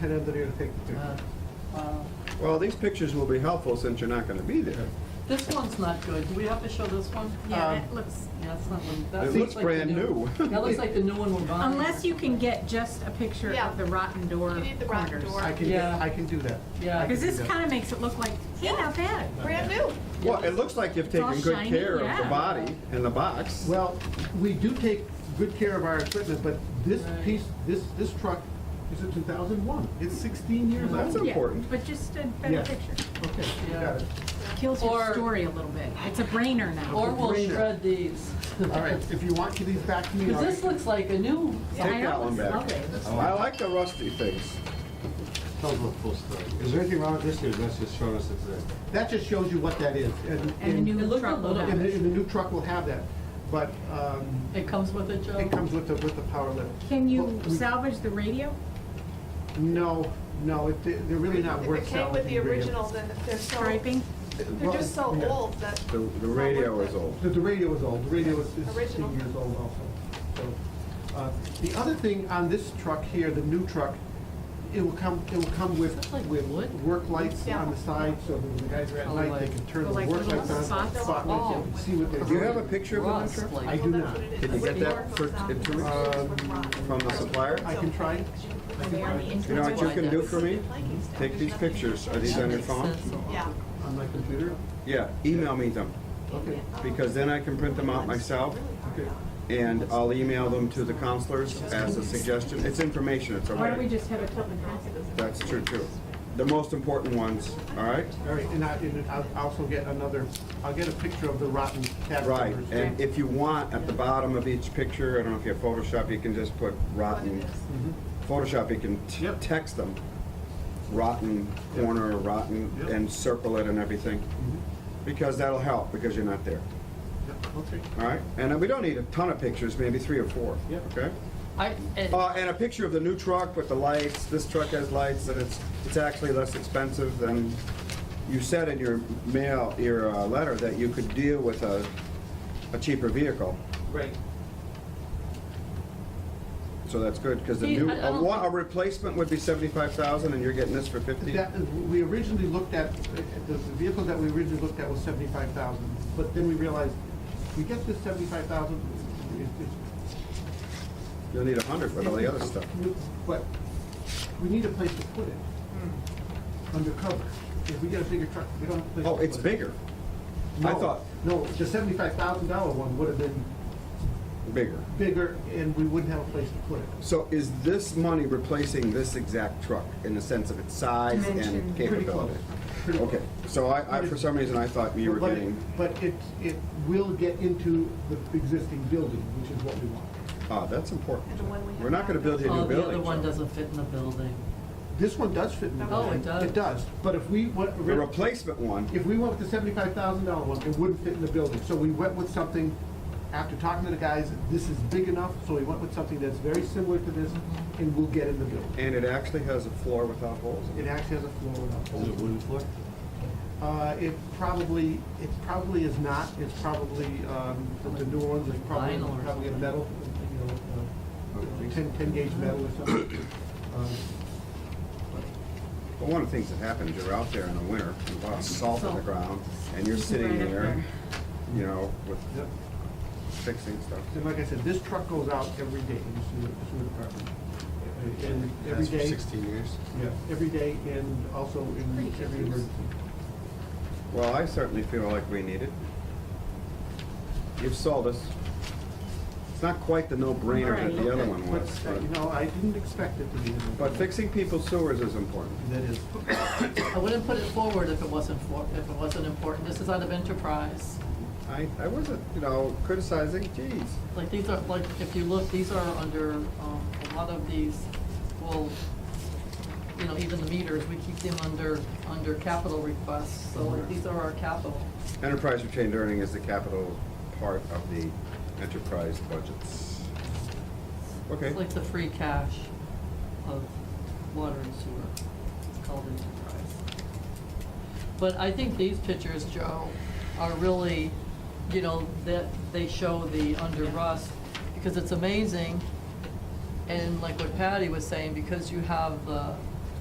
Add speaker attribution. Speaker 1: Head under there to take the
Speaker 2: Uh,
Speaker 1: picture.
Speaker 2: uh,
Speaker 3: Well, these pictures will be helpful since you're not going to be there.
Speaker 2: This one's not good. Do we have to show this one?
Speaker 4: Yeah,
Speaker 2: Um,
Speaker 4: that looks,
Speaker 2: Yeah, that's not one. that
Speaker 3: It
Speaker 2: looks
Speaker 3: looks
Speaker 2: like the
Speaker 3: brand new.
Speaker 2: That looks like the new one we're buying.
Speaker 4: unless you can get just a picture
Speaker 5: Yeah.
Speaker 4: of the rotten door
Speaker 5: You need the rotten
Speaker 4: corners.
Speaker 5: door.
Speaker 1: I can,
Speaker 2: Yeah.
Speaker 1: I can do that.
Speaker 2: Yeah.
Speaker 1: I can
Speaker 4: Because this
Speaker 1: do that.
Speaker 4: kind of makes it look like, hey, not bad.
Speaker 5: Brand new.
Speaker 3: Well, it looks like you've
Speaker 4: It's all
Speaker 3: taken good
Speaker 4: shiny,
Speaker 3: care of the
Speaker 4: yeah.
Speaker 3: body and the box.
Speaker 1: Well, we do take good care of our equipment, but this
Speaker 2: Right.
Speaker 1: piece, this, this truck is a 2001. It's 16 years
Speaker 3: That's
Speaker 1: old.
Speaker 4: Yeah,
Speaker 3: important.
Speaker 4: But just a
Speaker 1: Yeah.
Speaker 4: better picture.
Speaker 1: Okay, you
Speaker 2: Yeah.
Speaker 1: got it.
Speaker 4: Kills your
Speaker 2: Or-
Speaker 4: story a little bit. It's a brainer now.
Speaker 2: Or we'll
Speaker 1: Greener.
Speaker 2: shred these.
Speaker 1: All right, if you want, give these back to me.
Speaker 2: Because this looks like a new.
Speaker 4: I
Speaker 3: Take that
Speaker 4: know,
Speaker 3: one
Speaker 4: it's
Speaker 3: back.
Speaker 4: lovely.
Speaker 3: Oh, I like the rusty things.
Speaker 6: Tell us the full story. Is there anything wrong with this, or that's just showing us it's there?
Speaker 1: That just shows you what that is. And
Speaker 4: And the
Speaker 2: It
Speaker 4: new
Speaker 2: looked a
Speaker 4: truck will
Speaker 2: little
Speaker 4: have
Speaker 1: And the,
Speaker 4: it.
Speaker 1: and the new truck will have that, but um,
Speaker 2: It comes with it, Joe?
Speaker 1: it comes with the, with the power lift.
Speaker 4: Can you
Speaker 1: Well, we-
Speaker 4: salvage the radio?
Speaker 1: No, no, it- they're really not
Speaker 5: If
Speaker 1: worth
Speaker 5: it came with
Speaker 1: salvaging.
Speaker 5: the original, then they're so,
Speaker 4: Striping?
Speaker 5: they're just so
Speaker 1: Well, yeah.
Speaker 5: old that.
Speaker 3: The,
Speaker 5: it's
Speaker 3: the
Speaker 5: not
Speaker 3: radio
Speaker 5: worth
Speaker 3: is
Speaker 5: it.
Speaker 3: old.
Speaker 1: The, the radio is old, the radio is is
Speaker 5: Original.
Speaker 1: 16 years old also. So, uh, The other thing on this truck here, the new truck, it will come, it will come with,
Speaker 2: Looks like
Speaker 1: with
Speaker 2: wood.
Speaker 1: work lights on the side, so that when the guys are at
Speaker 2: Oh,
Speaker 1: night, they
Speaker 2: like-
Speaker 1: can turn
Speaker 4: Oh,
Speaker 1: the
Speaker 4: like
Speaker 1: work
Speaker 4: little
Speaker 1: lights on.
Speaker 4: spots?
Speaker 1: spot lights,
Speaker 2: Oh.
Speaker 1: and See what they're
Speaker 3: Do you have
Speaker 1: doing.
Speaker 3: a picture of the
Speaker 2: Rust,
Speaker 3: new truck?
Speaker 2: like-
Speaker 1: I do
Speaker 5: Well, that's
Speaker 1: not.
Speaker 5: what it is.
Speaker 3: Can you
Speaker 5: It's
Speaker 3: get that
Speaker 5: worth
Speaker 3: for-
Speaker 5: thousands.
Speaker 3: in two
Speaker 5: It's
Speaker 3: weeks?
Speaker 5: worth
Speaker 1: Um,
Speaker 5: rotten.
Speaker 3: from the supplier?
Speaker 1: I can try it.
Speaker 5: Because you put them on the
Speaker 3: You know what you can do for me?
Speaker 5: Planking stuff.
Speaker 3: Take these
Speaker 5: There's nothing-
Speaker 3: pictures. Are these on your phone?
Speaker 5: Yeah.
Speaker 1: On my computer?
Speaker 3: Yeah, email me them,
Speaker 1: Okay.
Speaker 3: because then I can print them out myself,
Speaker 1: Okay.
Speaker 3: and I'll email them to the counselors as a suggestion. It's information, it's
Speaker 4: Why don't we
Speaker 3: okay.
Speaker 4: just have a Tilton Crossing?
Speaker 3: That's true, too. The most important ones, all right?
Speaker 1: All right, and I, and I'll also get another, I'll get a picture of the rotten cat.
Speaker 3: Right,
Speaker 1: covers.
Speaker 3: and if you want, at the bottom of each picture, I don't know if you have Photoshop, you can just put rotten.
Speaker 1: Mhm.
Speaker 3: Photoshop, you can t-
Speaker 1: Yep.
Speaker 3: text them rotten corner, rotten,
Speaker 1: Yep.
Speaker 3: and circle it and everything,
Speaker 1: Mhm.
Speaker 3: because that'll help, because you're not there,
Speaker 1: Yep, Okay.
Speaker 3: all right? And uh, we don't need a ton of pictures, maybe three or four,
Speaker 1: Yep.
Speaker 3: okay?
Speaker 2: I, it-
Speaker 3: Uh, and a picture of the new truck with the lights, this truck has lights, and it's, it's actually less expensive than, you said in your mail, your uh, letter, that you could deal with a, a cheaper vehicle.
Speaker 1: Right.
Speaker 3: So that's good, because the
Speaker 2: See,
Speaker 3: new,
Speaker 2: I- I
Speaker 3: a
Speaker 2: don't
Speaker 3: wa- a
Speaker 2: think-
Speaker 3: replacement would be seventy-five thousand, and you're getting this for fifty?
Speaker 1: That, we originally looked at, the vehicle that we originally looked at was seventy-five thousand, but then we realized, we get this seventy-five thousand,
Speaker 3: You'll need a hundred with all the other stuff.
Speaker 1: But we need a place to put it, undercover. If we get a bigger truck, we don't have a place to
Speaker 3: Oh,
Speaker 1: put it.
Speaker 3: it's bigger, I
Speaker 1: No,
Speaker 3: thought-
Speaker 1: No, the seventy-five thousand dollar one would have been
Speaker 3: bigger.
Speaker 1: bigger, and we wouldn't have a place to put it.
Speaker 3: So is this money replacing this exact truck in the sense of its size
Speaker 4: Dimension.
Speaker 3: and
Speaker 1: Pretty close.
Speaker 3: capability?
Speaker 1: Pretty close.
Speaker 3: Okay, so I, I, for some reason, I thought you were
Speaker 1: But it-
Speaker 3: getting,
Speaker 1: But it, it will get into the existing building, which is what we want.
Speaker 3: ah, that's important.
Speaker 5: And the one we have
Speaker 3: We're not gonna build you a
Speaker 2: oh,
Speaker 3: new
Speaker 2: the other
Speaker 3: building.
Speaker 2: one
Speaker 3: Joe.
Speaker 2: doesn't fit in the building.
Speaker 1: This one does fit in the
Speaker 5: Oh,
Speaker 1: building.
Speaker 2: it does.
Speaker 1: It does, but if we went,
Speaker 3: The replacement one,
Speaker 1: if we went with the seventy-five thousand dollar one, it wouldn't fit in the building. So we went with something, after talking to the guys, this is big enough, so we went with something that's very similar to this,
Speaker 2: Mm-hmm.
Speaker 1: and we'll get in the building.
Speaker 3: and it actually has a floor without holes in
Speaker 1: It
Speaker 3: it.
Speaker 1: actually has a floor without
Speaker 6: Is it
Speaker 1: holes.
Speaker 6: wooden floor?
Speaker 1: Uh, it probably, it probably is not, it's probably, um, the New Orleans is probably,
Speaker 2: Vinyl or
Speaker 1: probably a
Speaker 2: something.
Speaker 1: metal, you know, uh, you know, ten, ten gauge metal or something. Um,
Speaker 3: But one of the things that happens, you're out there in the winter, with a lot of salt on the
Speaker 2: Salt.
Speaker 3: ground, and you're sitting
Speaker 4: Right up
Speaker 3: there,
Speaker 4: there.
Speaker 3: you know, with
Speaker 1: Yep.
Speaker 3: fixing stuff.
Speaker 1: And like I said, this truck goes out every day in the sewer, sewer department. Uh, And every
Speaker 6: That's for
Speaker 1: day,
Speaker 6: Sixteen years.
Speaker 1: yeah, every day and also in
Speaker 4: Pretty
Speaker 1: every
Speaker 4: good.
Speaker 1: emergency.
Speaker 3: Well, I certainly feel like we need it. You've sold us. It's not quite the no-brainer that the other one
Speaker 1: But,
Speaker 3: was,
Speaker 1: uh, you
Speaker 3: but,
Speaker 1: know, I didn't expect it to be. in the-
Speaker 3: but fixing people's sewers is important.
Speaker 1: That is,
Speaker 2: I wouldn't put it forward if it wasn't for, if it wasn't important. This is out of enterprise.
Speaker 3: I, I wasn't, you know, criticizing, geez.
Speaker 2: Like these are, like, if you look, these are under, um, a lot of these will, you know, even the meters, we keep them under, under capital requests, so like, these are our capital.
Speaker 3: Enterprise retained earning is the capital part of the enterprise budgets. Okay,
Speaker 2: It's like the free cash of water and sewer, it's called enterprise. But I think these pictures, Joe, are really, you know, that they show the under rust, because it's amazing, and like what Patty was saying, because you have the